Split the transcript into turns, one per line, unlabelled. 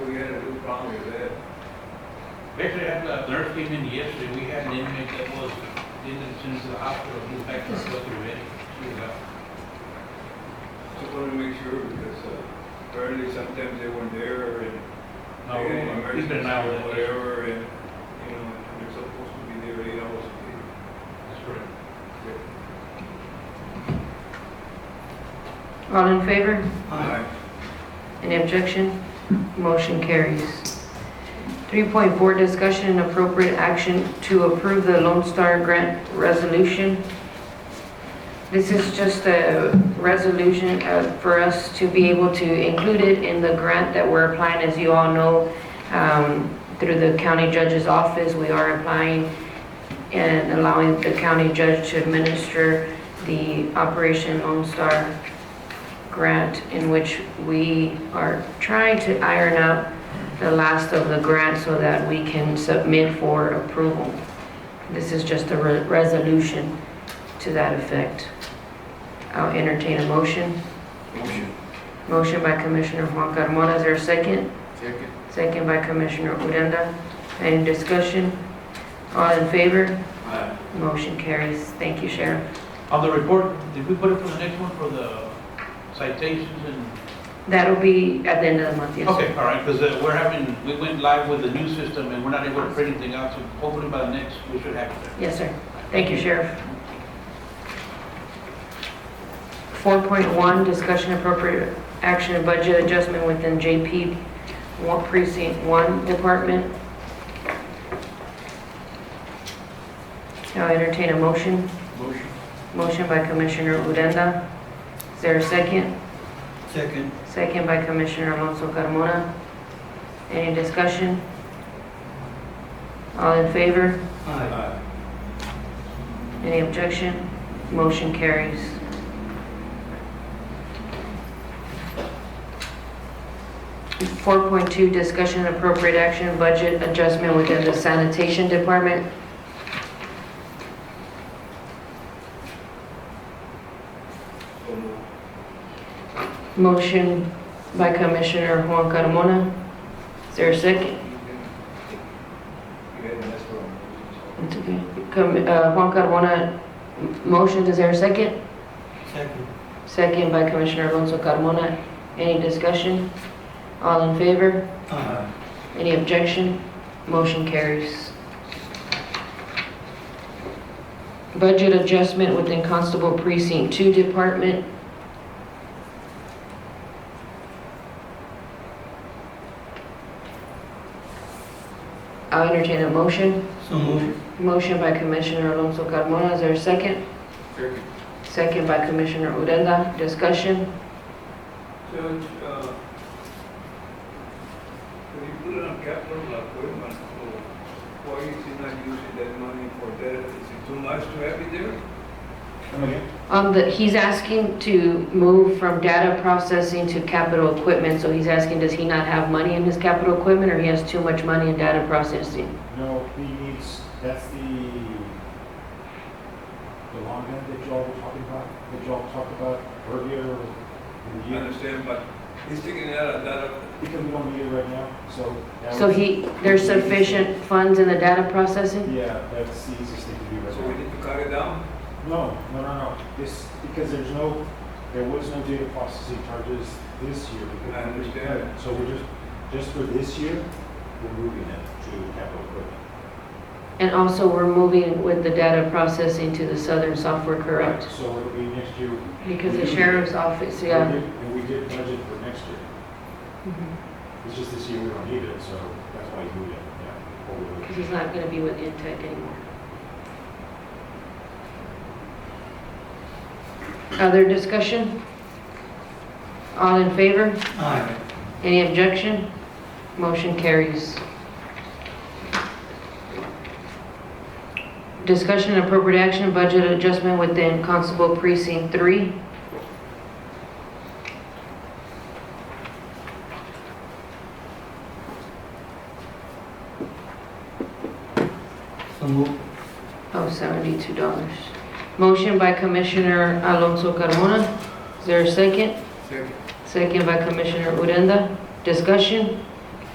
problem with that. Actually, I had a nurse came in yesterday, we had an inmate that was, did it as soon as the hospital, he was back to work already. She was out.
Just wanted to make sure because uh, apparently sometimes they weren't there and
No,
they had an
uh, he's been an hour.
emergency or whatever and, you know, and they're supposed to be there eight hours a
That's correct.
day.
All in favor?
Aye.
Any objection? Motion carries. 3.4, discussion and appropriate action to approve the Lone Star Grant Resolution. This is just a resolution uh, for us to be able to include it in the grant that we're applying. As you all know, um, through the county judge's office, we are applying and allowing the county judge to administer the Operation Lone Star grant in which we are trying to iron out the last of the grant so that we can submit for approval. This is just a re- resolution to that effect. I'll entertain a motion.
Motion.
Motion by Commissioner Juan Carmona, is there a second?
Second.
Second by Commissioner Uranda. Any discussion? All in favor?
Aye.
Motion carries. Thank you, Sheriff.
On the report, did we put it for the next one for the citations and?
That'll be at the end of the month, yes. sir.
Okay, all right, because we're having, we went live with the new system and we're not able to print anything out, so hopefully by the next, we should have it. there.
Yes, sir. Thank you, Sheriff. 4.1, discussion appropriate action and budget adjustment within JP War Precinct 1 Department. Now entertain a motion.
Motion.
Motion by Commissioner Urenda. Is there a second?
Second.
Second by Commissioner Alonso Carmona. Any discussion? All in favor?
Aye.
Any objection? Motion carries. Four point two, discussion and appropriate action, budget adjustment within the sanitation department.
So moved.
Motion by Commissioner Juan Carmona. Is there a second?
You had an escrow on it.
It's okay. Com- uh, Juan Carmona, m- motion, is there a second?
Second.
Second by Commissioner Alonso Carmona. Any discussion? All in favor?
Aye.
Any objection? Motion carries. Budget adjustment within Constable Precinct 2 Department. I'll entertain a motion.
So moved.
Motion by Commissioner Alonso Carmona, is there a second?
Second.
Second by Commissioner Odena, discussion?
Judge, uh, when you put it on capital equipment, so why is he not using that money for that? Is it too much to have it there?
On Um, the, he's asking to move from data processing to capital equipment, so he's asking, does he not have money in his capital equipment, or he has too much money in data processing?
No, he needs, that's the, the long end that y'all were talking about, that y'all talked about earlier in the
You
year.
understand, but he's taking it out of that,
Because we don't need it right now, so. that
So
was-
he, there's sufficient funds in the data processing?
Yeah, that's the easiest thing to do
so we
right
need to cut it down?
now. No, no, no, no, this, because there's no, there was no data processing charges this year. because-
I understand.
So we're just, just for this year, we're moving it to capital equipment.
And also, we're moving with the data processing to the Southern Software, correct?
So it'll be next year.
Because the sheriff's office, yeah. Mm-hmm.
And we did budget for next year.
Because
It's just this year we don't need it, so that's why you moved it, yeah. Or we would-
he's not gonna be with Intech anymore. Other discussion? All in favor?
Aye.
Any objection? Motion carries. Discussion and appropriate action, budget adjustment within Constable Precinct 3.
So move.
Oh, $72. Motion by Commissioner Alonso Carmona. Is there a second?
Second.
Second by Commissioner Urenda. Discussion?